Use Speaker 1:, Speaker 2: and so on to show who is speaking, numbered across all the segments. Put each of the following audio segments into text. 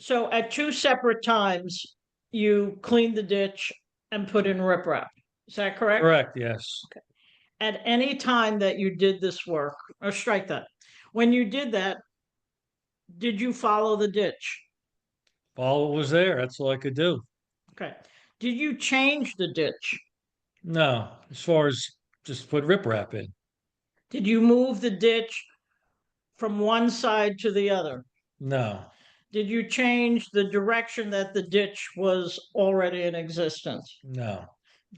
Speaker 1: So at two separate times, you cleaned the ditch and put in riprap. Is that correct?
Speaker 2: Correct, yes.
Speaker 1: At any time that you did this work, or strike that, when you did that, did you follow the ditch?
Speaker 2: All what was there, that's all I could do.
Speaker 1: Okay. Did you change the ditch?
Speaker 2: No, as far as just put riprap in.
Speaker 1: Did you move the ditch from one side to the other?
Speaker 2: No,
Speaker 1: Did you change the direction that the ditch was already in existence?
Speaker 2: no,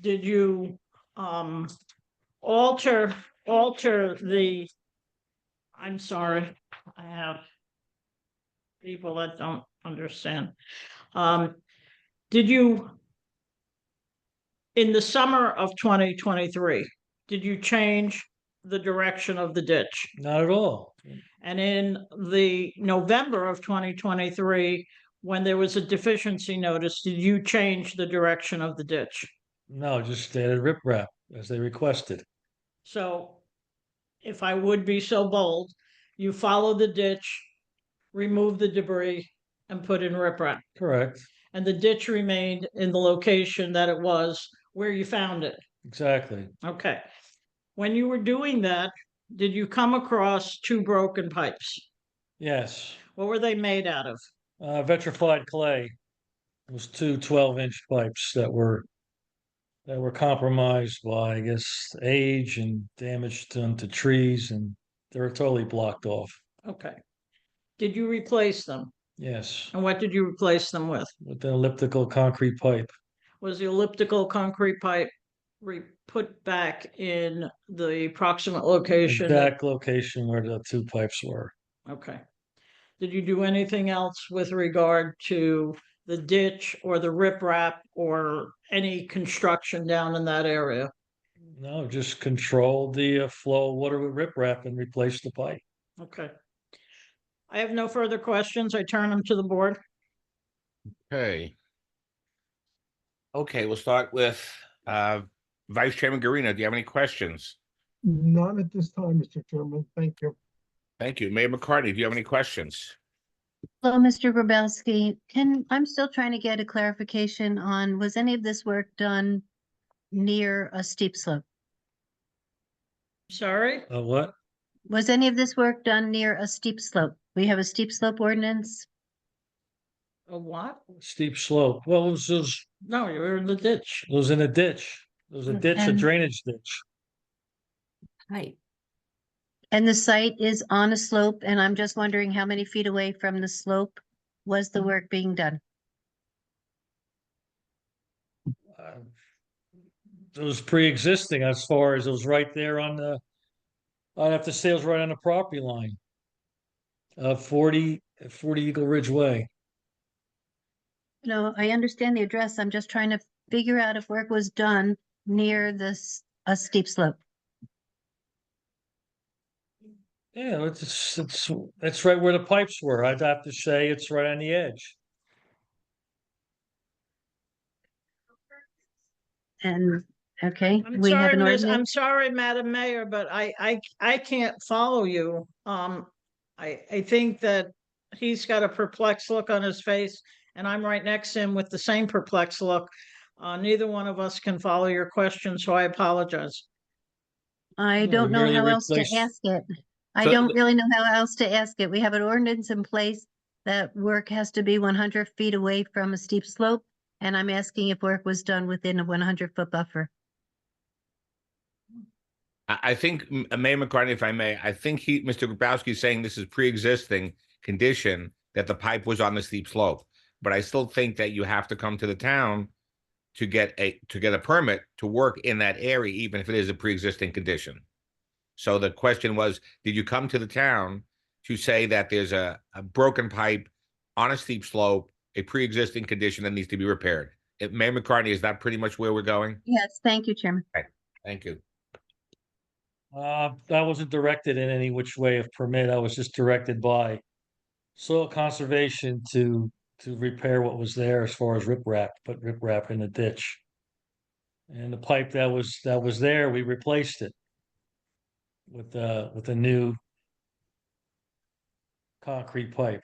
Speaker 1: did you um alter, alter the, I'm sorry, I have people that don't understand. Um, did you in the summer of twenty twenty-three, did you change the direction of the ditch?
Speaker 2: not at all.
Speaker 1: And in the November of twenty twenty-three, when there was a deficiency notice, did you change the direction of the ditch?
Speaker 2: No, just added riprap as they requested.
Speaker 1: So if I would be so bold, you follow the ditch, remove the debris and put in riprap.
Speaker 2: Correct,
Speaker 1: And the ditch remained in the location that it was where you found it.
Speaker 2: exactly.
Speaker 1: Okay. When you were doing that, did you come across two broken pipes?
Speaker 2: Yes,
Speaker 1: What were they made out of?
Speaker 2: uh, vitrified clay was two 12 inch pipes that were that were compromised by, I guess, age and damage done to trees, and they were totally blocked off.
Speaker 1: Okay. Did you replace them?
Speaker 2: Yes,
Speaker 1: And what did you replace them with?
Speaker 2: with an elliptical concrete pipe.
Speaker 1: was the elliptical concrete pipe re- put back in the proximate location? that-
Speaker 2: exact location where the two pipes were.
Speaker 1: Okay. Did you do anything else with regard to the ditch or the riprap or any construction down in that area?
Speaker 2: No, just control the uh, flow of water with riprap and replace the pipe.
Speaker 1: Okay. I have no further questions. I turn them to the board.
Speaker 3: Okay. Okay, we'll start with uh Vice Chairman Garino. Do you have any questions?
Speaker 4: Not at this time, Mr. Chairman. Thank you.
Speaker 3: Thank you. Mayor McCartney, do you have any questions?
Speaker 5: Hello, Mr. Grabowski. Can, I'm still trying to get a clarification on, was any of this work done near a steep slope?
Speaker 1: Sorry?
Speaker 2: Uh, what?
Speaker 5: Was any of this work done near a steep slope? We have a steep slope ordinance.
Speaker 1: A what?
Speaker 2: Steep slope. Well, it was, it was,
Speaker 1: No, you were in the ditch.
Speaker 2: it was in a ditch. It was a ditch, a
Speaker 5: And-
Speaker 2: drainage ditch.
Speaker 5: Right. And the site is on a slope, and I'm just wondering how many feet away from the slope was the work being done?
Speaker 2: Uh, It was pre-existing as far as it was right there on the, I'd have to say it was right on the property line. Uh, 40 40 Eagle Ridge Way.
Speaker 5: No, I understand the address. I'm just trying to figure out if work was done near this, a steep slope.
Speaker 2: Yeah, it's- it's, it's, it's right where the pipes were. I'd have to say it's right on the edge.
Speaker 5: And, okay,
Speaker 1: I'm
Speaker 5: we have
Speaker 1: sorry,
Speaker 5: an
Speaker 1: Miss,
Speaker 5: ordinance.
Speaker 1: I'm sorry, Madam Mayor, but I, I, I can't follow you. Um, I, I think that he's got a perplexed look on his face and I'm right next to him with the same perplexed look. Uh, neither one of us can follow your question, so I apologize.
Speaker 5: I
Speaker 2: No,
Speaker 5: don't know
Speaker 2: merely
Speaker 5: how else to
Speaker 2: replace-
Speaker 5: ask it. I
Speaker 3: So
Speaker 5: don't
Speaker 3: the-
Speaker 5: really know how else to ask it. We have an ordinance in place that work has to be one hundred feet away from a steep slope. And I'm asking if work was done within a one hundred foot buffer.
Speaker 3: I, I think M- uh, Mayor McCartney, if I may, I think he, Mr. Grabowski is saying this is pre-existing condition that the pipe was on the steep slope. But I still think that you have to come to the town to get a, to get a permit to work in that area, even if it is a pre-existing condition. So the question was, did you come to the town to say that there's a, a broken pipe on a steep slope, a pre-existing condition that needs to be repaired? Uh, Mayor McCartney, is that pretty much where we're going?
Speaker 5: Yes, thank you, Chairman.
Speaker 3: Thank you.
Speaker 2: Uh, I wasn't directed in any which way of permit. I was just directed by soil conservation to, to repair what was there as far as riprap, put riprap in the ditch. And the pipe that was, that was there, we replaced it with, uh, with a new concrete pipe.